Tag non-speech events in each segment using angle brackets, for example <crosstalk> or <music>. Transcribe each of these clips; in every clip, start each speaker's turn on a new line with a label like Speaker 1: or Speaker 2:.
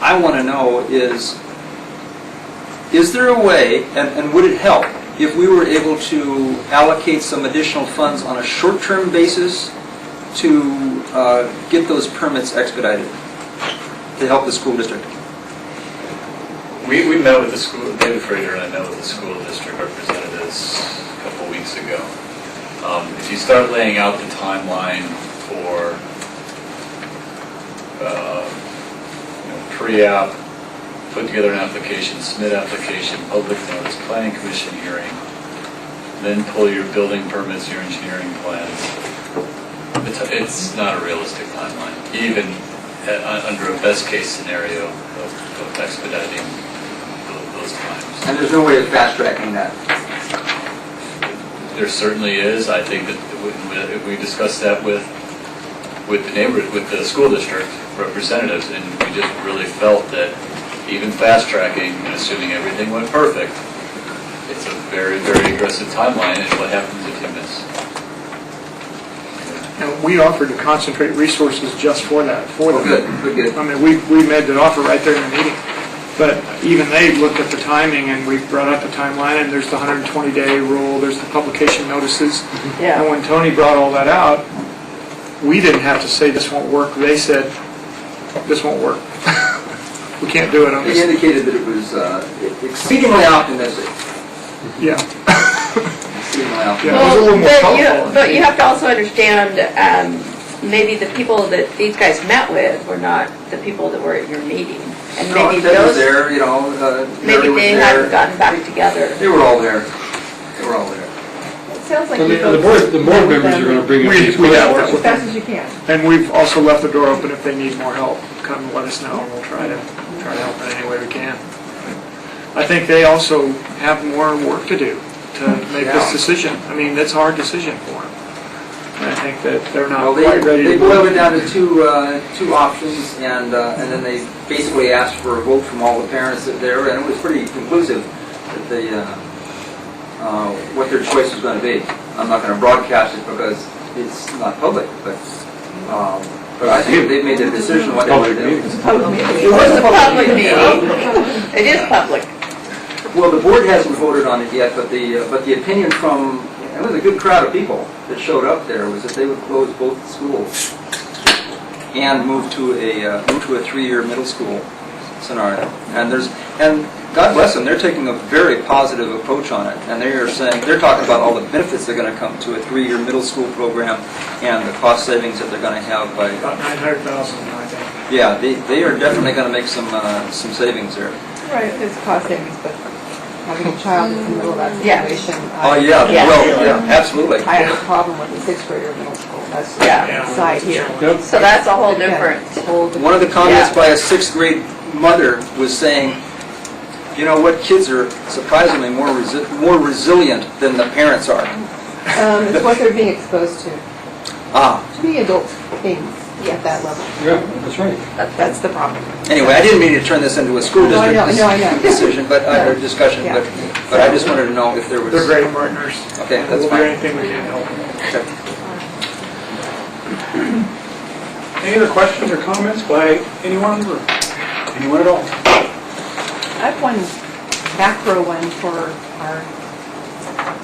Speaker 1: I want to know is, is there a way, and, and would it help, if we were able to allocate some additional funds on a short-term basis to uh, get those permits expedited, to help the school district?
Speaker 2: We, we met with the school, David Fraser and I met with the school district representatives a couple weeks ago. Um, If you start laying out the timeline for, uh, you know, pre-app, put together an application, submit application, public notice, planning commission hearing, then pull your building permits, your engineering plans, it's, it's not a realistic timeline, even at- un- under a best-case scenario of of expediting tho- those times.
Speaker 1: And there's no way of fast-tracking that.
Speaker 2: There certainly is, I think that we- we we discussed that with, with the neighbor, with the school district representatives, and we just really felt that even fast-tracking, and assuming everything went perfect, it's a very, very aggressive timeline, and what happens if you miss?
Speaker 3: And we offered to concentrate resources just for that, for them.
Speaker 1: Good, Oh, good, good.
Speaker 3: I mean, we, we made that offer right there in the meeting. But even they looked at the timing, and we brought up the timeline, and there's the 120-day rule, there's the publication notices. And when Tony brought all that out, we didn't have to say this won't work, they said, this won't work. <laughs> We can't do it on
Speaker 1: It
Speaker 3: this,
Speaker 1: indicated that it was uh, exceedingly optimistic,
Speaker 3: yeah.
Speaker 1: exceedingly
Speaker 3: Yeah.
Speaker 1: optimistic.
Speaker 3: it was a little more
Speaker 4: Well, but you,
Speaker 3: thoughtful.
Speaker 4: but you have to also understand, um, maybe the people that these guys met with were not the people that were at your meeting. And
Speaker 1: No,
Speaker 4: maybe
Speaker 1: Ted was
Speaker 4: those,
Speaker 1: there, you know, uh, Mary
Speaker 4: maybe
Speaker 1: was
Speaker 4: they
Speaker 1: there.
Speaker 4: hadn't gotten back together.
Speaker 1: They were all there. They were all there.
Speaker 4: It sounds like
Speaker 5: I
Speaker 4: you
Speaker 5: mean,
Speaker 4: both.
Speaker 5: the board, the board members are gonna bring up
Speaker 3: We-
Speaker 5: these
Speaker 3: we have that one.
Speaker 5: questions.
Speaker 6: As fast as you can.
Speaker 3: And we've also left the door open if they need more help, come let us know, and we'll try to, try to help in any way we can. I think they also have more work to do to make
Speaker 1: Yeah.
Speaker 3: this decision. I mean, that's a hard decision for them. And I think that they're
Speaker 1: Well,
Speaker 3: not
Speaker 1: they,
Speaker 3: quite ready to...
Speaker 1: they boiled it down to two, uh, two options, and, uh, and then they basically asked for a vote from all the parents that there, and it was pretty conclusive that they, uh, uh, what their choice was gonna be. I'm not gonna broadcast it because it's not public, but, um, but I think they've made their decision what they
Speaker 5: Public
Speaker 1: would do.
Speaker 5: meetings.
Speaker 4: It was a public meeting. <laughs> It is public.
Speaker 1: Well, the board hasn't voted on it yet, but the, uh, but the opinion from, it was a good crowd of people that showed up there, was that they would close both schools and move to a, uh, move to a three-year middle school scenario. And there's, and God bless them, they're taking a very positive approach on it, and they are saying, they're talking about all the benefits that are gonna come to a three-year middle school program and the cost savings that they're gonna have by,
Speaker 3: About 900,000, I think.
Speaker 1: yeah, they, they are definitely gonna make some, uh, some savings there.
Speaker 6: Right, it's cost savings, but having a child in the middle of that
Speaker 4: Yeah.
Speaker 6: situation.
Speaker 1: Oh,
Speaker 6: I-
Speaker 1: yeah,
Speaker 4: Yeah.
Speaker 1: well, yeah, absolutely.
Speaker 6: I have a problem with the sixth grader in middle school, that's
Speaker 4: Yeah.
Speaker 6: the side here.
Speaker 5: Yep.
Speaker 4: So that's a whole different.
Speaker 1: One of the comments
Speaker 4: Yeah.
Speaker 1: by a sixth grade mother was saying, you know what, kids are surprisingly more resi- more resilient than the parents are.
Speaker 6: Um, It's what they're being exposed to,
Speaker 1: Ah,
Speaker 6: to be adult things at that level.
Speaker 5: Yeah, that's right.
Speaker 6: That's the problem.
Speaker 1: anyway, I didn't mean to turn this into a school
Speaker 6: No, I
Speaker 1: district
Speaker 6: know, no, I know.
Speaker 1: dis- decision, but, uh, or discussion,
Speaker 6: Yeah.
Speaker 1: but, but I just wanted to know if there was.
Speaker 3: They're great partners.
Speaker 1: Okay, that's
Speaker 3: We'll do
Speaker 1: fine.
Speaker 3: anything we can to help them.
Speaker 1: Okay.
Speaker 7: Any other questions or comments by anyone or anyone at all?
Speaker 6: I have one macro one for our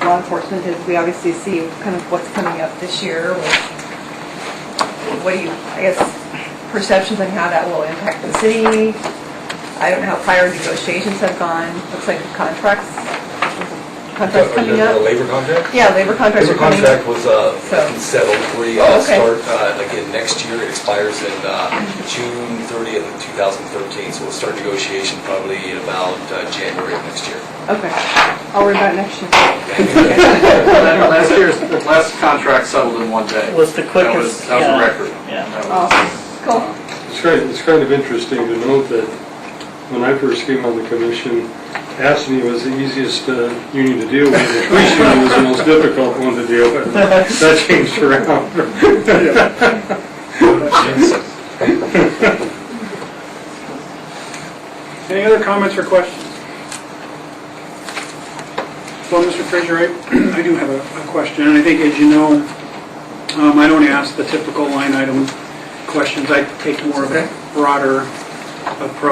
Speaker 6: law enforcement, is we obviously see kind of what's coming up this year with, what do you, I guess, perceptions on how that will impact the city. I don't know how prior negotiations have gone, looks like contracts, contracts coming
Speaker 8: The
Speaker 6: up.
Speaker 8: labor contract?
Speaker 6: Yeah, labor contracts
Speaker 8: Labor
Speaker 6: are coming up.
Speaker 8: contract was uh,
Speaker 6: So-
Speaker 8: settled, we
Speaker 6: Oh,
Speaker 8: uh,
Speaker 6: okay.
Speaker 8: start uh, again next year, it expires in uh, June 30th of 2013, so we'll start negotiation probably in about uh, January of next year.
Speaker 6: Okay, I'll worry about it next year.
Speaker 2: Last year's, last contract settled in one day.
Speaker 9: was the
Speaker 2: That
Speaker 9: quickest.
Speaker 2: was, that was a
Speaker 9: yeah.
Speaker 2: record.
Speaker 9: Yeah.
Speaker 2: That was-
Speaker 6: Awesome, cool.
Speaker 5: It's kind, it's kind of interesting to note that when I first came on the commission, ASME was the easiest uh, union to deal with. The police union was the most difficult one to deal with. That changed around.
Speaker 7: Any other comments or questions? Well, Mr. Fraser, I, <clears throat> I do have a, a question, and I think, as you know, um, I don't ask the typical line item questions, I take more of a broader approach.